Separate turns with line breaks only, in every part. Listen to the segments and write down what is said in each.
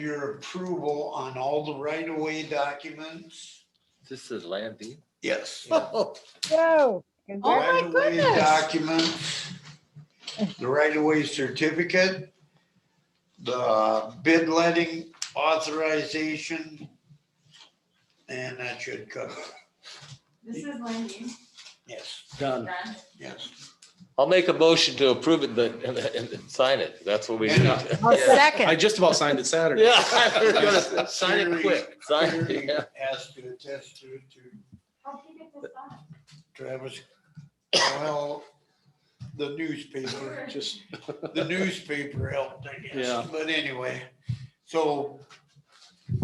your approval on all the right-of-way documents?
This is land deed.
Yes.
Whoa.
Oh
congrats.
my
Right-of-way
goodness.
Documents, the right-of-way certificate, the bid letting authorization, and that should cover, it.
This is Lindy.
yes,
Done.
Brad.
yes.
I'll make a motion to approve it, but, and, and sign it. That's what we need.
uh,
A
Yeah.
I
second.
just about signed it Saturday.
Yeah, I was gonna s- Sign it quick. Sign it,
Clearly
yeah.
Has to attest to, to
How'd you get this done?
Travis, well, the newspaper,
Just,
the newspaper helped, I
Yeah.
guess, but anyway, so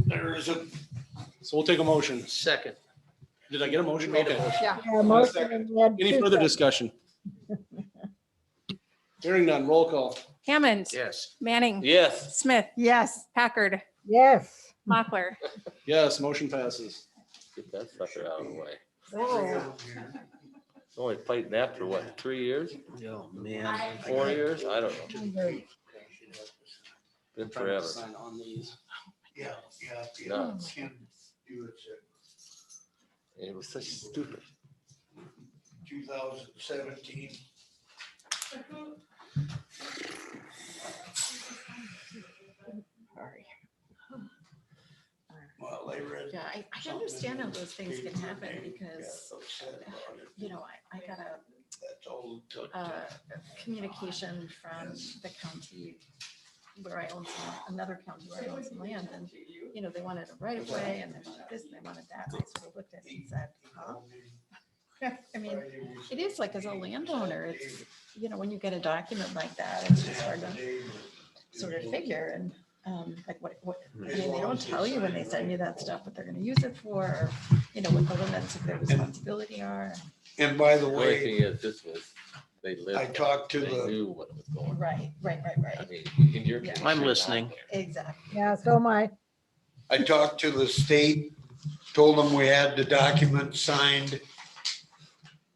there is a
so we'll take a motion.
Second.
Did I get a motion?
Made a
Okay.
Yeah, motion
Second.
and we had
Any
two
further
seconds.
discussion? Hearing none, roll call.
Hammond,
Yes.
Manning,
Yes.
Smith,
Yes.
Packard,
Yes.
Mochler.
Yes, motion passes.
Get that sucker out of the way.
Oh,
Only fighting that for what, three years,
Oh, man.
four years? I don't know.
hungry.
Been forever.
Sign on these.
Yeah, yeah, yeah.
Nuts.
Can do it
It was such stupid.
two thousand seventeen.
Sorry.
Well, they read.
Yeah, I, I understand how those things can happen because, you know, I, I got a,
That's all it took.
uh, communication from the county where I own some, another county where I own some land and, you know, they wanted a right of way and they wanted this, and they wanted that. And I sort of looked at it and said, huh? I mean, it is like as a landowner, it's, you know, when you get a document like that, it's just hard to sort of figure and, um, like what, what, I mean, they don't tell you when they send you that stuff, what they're gonna use it for, or, you know, what the limits of their responsibility are.
And by the
The only
way,
thing is, this was, they lived.
I talked to
They
the,
knew what was going on.
Right, right, right,
I
right.
mean, in your. case,
I'm
you're not
listening.
there.
Exactly.
Yeah, so Oh my,
I talked to the state, told them we had the document signed.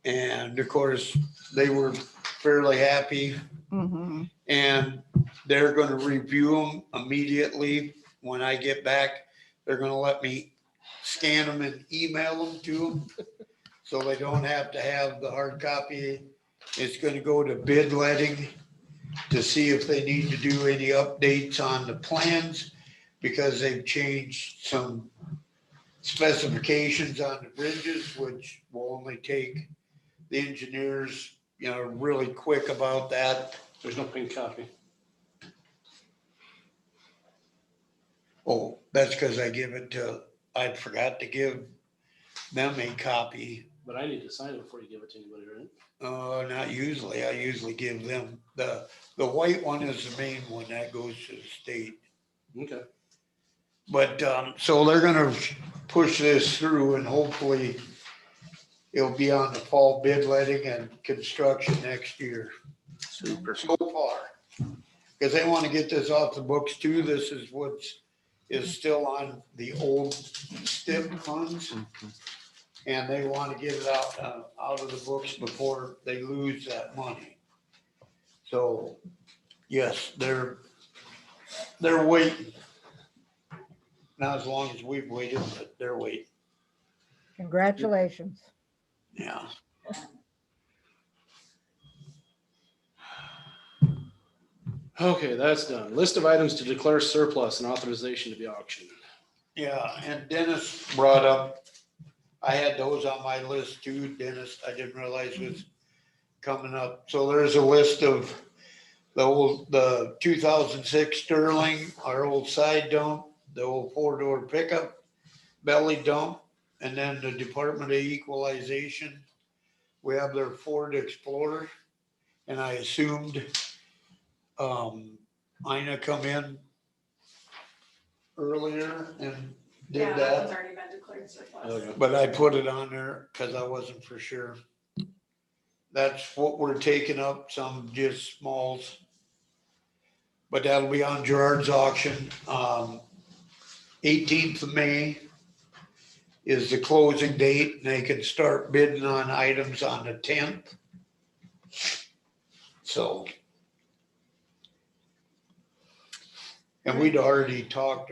And of course, they were fairly happy.
Mm-hmm.
And they're gonna review them immediately when I get back. They're gonna let me scan them and email them to them. So they don't have to have the hard copy. It's gonna go to bid letting to see if they need to do any updates on the plans because they've changed some specifications on the bridges, which will only take the engineers, you know, really quick about that.
There's no pink copy.
Oh, that's because I give it to, I forgot to give them a copy.
But I need to sign it before you give it to anybody, right?
Uh, not usually. I usually give them the, the white one is the main one that goes to the state.
Okay.
But, um, so they're gonna push this through and hopefully it'll be on the fall bid letting and construction next year
Super.
so far. Because they want to get this off the books too. This is what's, is still on the old STIP funds. And they want to get it out, uh, out of the books before they lose that money. So, yes, they're, they're waiting. Not as long as we've waited, but they're waiting,
congratulations.
yeah.
Okay, that's done. List of items to declare surplus and authorization to be auctioned.
Yeah, and Dennis brought up, I had those on my list too, Dennis, I didn't realize was coming up. So there's a list of the old, the two thousand six Sterling, our old side dump, the old four-door pickup, belly dump, and then the Department of Equalization. We have their Ford Explorer, and I assumed, um, Ina come in earlier and
Yeah,
did uh,
that
that.
one's already been declared surplus.
Okay.
But I put it on there because I wasn't for sure. That's what we're taking up, some just smalls. But that'll be on Gerard's auction. Um, eighteenth of May is the closing date and they can start bidding on items on the tenth. So. And we'd already talked